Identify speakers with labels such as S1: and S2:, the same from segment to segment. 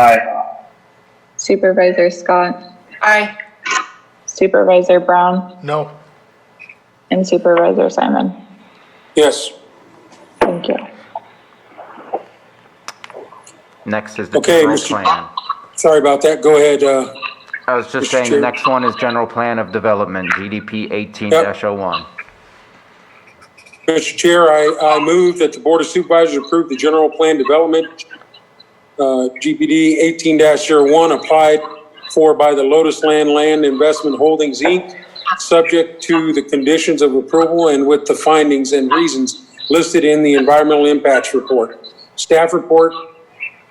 S1: Aye.
S2: Supervisor Scott,
S3: Aye.
S2: Supervisor Brown,
S4: No.
S2: and Supervisor Simon.
S5: Yes.
S2: Thank you.
S6: Next is the
S5: Okay,
S6: general
S5: Mr.
S6: plan.
S5: Sorry about that. Go ahead. Uh,
S6: I was
S5: Mr.
S6: just saying, the
S5: Chair.
S6: next one is general plan of development, GDP 18-01.
S5: Mr. Chair, I, I move that the Board of Supervisors approve the general plan development, uh, GPD eighteen one, applied for by the Lotus Land Land Investment Holdings, Inc., subject to the conditions of approval and with the findings and reasons listed in the environmental impacts report. Staff report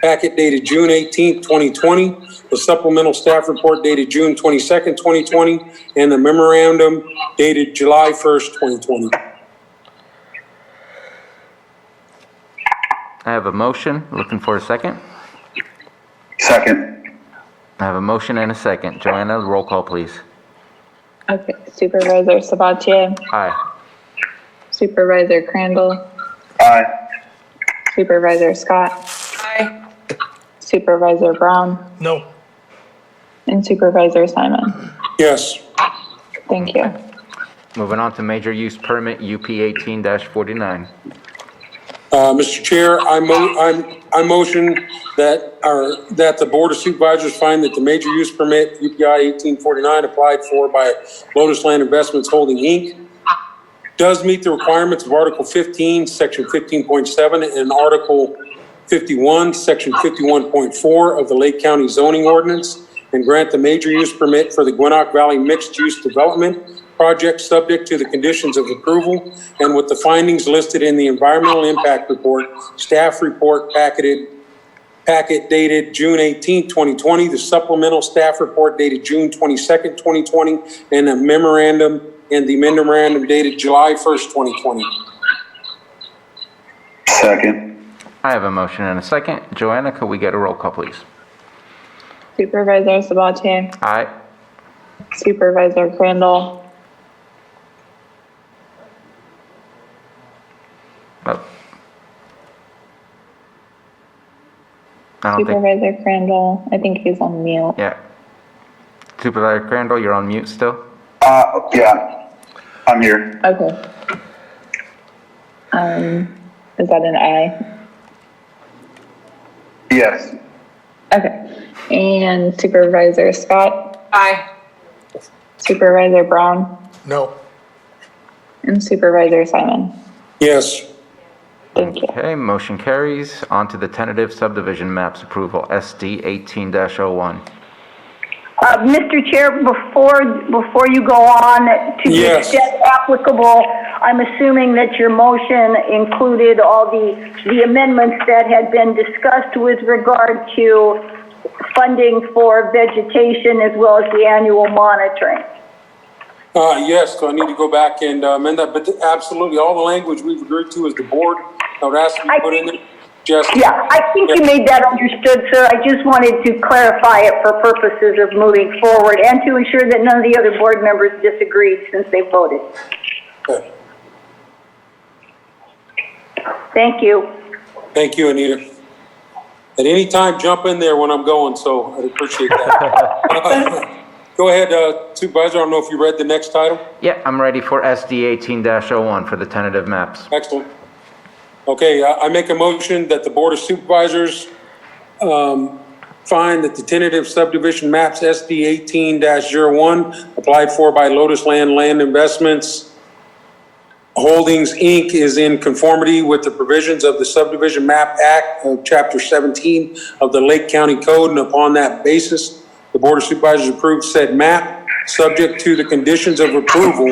S5: packet dated June 18, 2020, the supplemental staff report dated June 22nd, 2020, and the memorandum dated July 1st, 2020.
S6: I have a motion, looking for a second.
S1: Second.
S6: I have a motion and a second. Joanna, roll call, please.
S2: Okay, Supervisor Sabatier,
S6: Aye.
S2: Supervisor Crandall,
S1: Aye.
S2: Supervisor Scott,
S3: Aye.
S2: Supervisor Brown,
S4: No.
S2: and Supervisor Simon.
S5: Yes.
S2: Thank you.
S6: Moving on to major use permit, UP 18-49.
S5: Uh, Mr. Chair, I mo, I'm, I motion that, our that the Board of Supervisors find that the major use permit UPI eighteen forty-nine applied for by Lotus Land Investments Holding Inc. does meet the requirements of Article fifteen, Section fifteen point seven, and Article fifty-one, Section fifty-one point four of the Lake County zoning ordinance, and grant the major use permit for the Gwinnett Valley Mixed Use Development Project subject to the conditions of approval and with the findings listed in the environmental impact report, staff report packeted, packet dated June 18, 2020, the supplemental staff report dated June 22nd, 2020, and a memorandum, and the memorandum dated July 1st, 2020.
S1: Second.
S6: I have a motion and a second. Joanna, could we get a roll call, please?
S2: Supervisor Sabatier,
S6: Aye.
S2: Supervisor Crandall,
S6: Oh. I don't think,
S2: Supervisor Crandall, I think he's on mute.
S6: yeah. Supervisor Crandall, you're on mute still?
S1: Uh, yeah. I'm here.
S2: Okay. Um, is that an aye?
S1: Yes.
S2: Okay. And Supervisor Scott,
S3: Aye.
S2: Supervisor Brown,
S4: No.
S2: and Supervisor Simon.
S5: Yes.
S2: Thank you.
S6: Okay, motion carries. On to the tentative subdivision maps approval, SD 18-01.
S7: Uh, Mr. Chair, before, before you go on, to the
S5: Yes.
S7: extent applicable, I'm assuming that your motion included all the, the amendments that had been discussed with regard to funding for vegetation as well as the annual monitoring.
S5: Uh, yes, so I need to go back and uh, amend that, but absolutely, all the language we've agreed to is the board. I would ask you to
S7: I
S5: put in there,
S7: think-
S5: just.
S7: Yeah, I think you made that understood, sir. I just wanted to clarify it for purposes of moving forward and to ensure that none of the other board members disagreed since they voted.
S5: Okay.
S7: Thank you.
S5: Thank you, Anita. At any time, jump in there when I'm going, so I'd appreciate that. Go ahead, uh, Supervisor, I don't know if you read the next title?
S6: Yeah, I'm ready for SD 18-01 for the tentative maps.
S5: Excellent. Okay, I I make a motion that the Board of Supervisors um, find that the tentative subdivision maps SD 18-01 applied for by Lotus Land Land Investments Holdings, Inc. is in conformity with the provisions of the Subdivision Map Act of Chapter 17 of the Lake County Code, and upon that basis, the Board of Supervisors approves said map, subject to the conditions of approval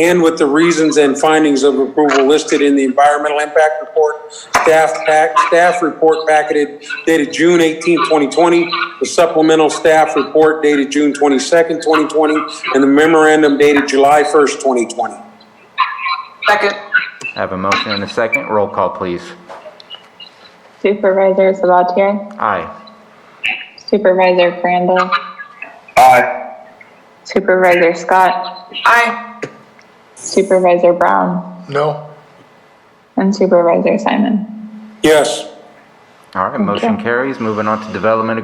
S5: and with the reasons and findings of approval listed in the Environmental Impact Report, staff pack, staff report packeted dated June 18, 2020, the supplemental staff report dated June 22nd, 2020, and the memorandum dated July 1st, 2020.
S3: Second.
S6: I have a motion and a second. Roll call, please.
S2: Supervisor Sabatier,
S6: Aye.
S2: Supervisor Crandall,
S1: Aye.
S2: Supervisor Scott,
S3: Aye.
S2: Supervisor Brown,
S4: No.
S2: and Supervisor Simon.
S5: Yes.
S6: All right, motion carries. Moving on to development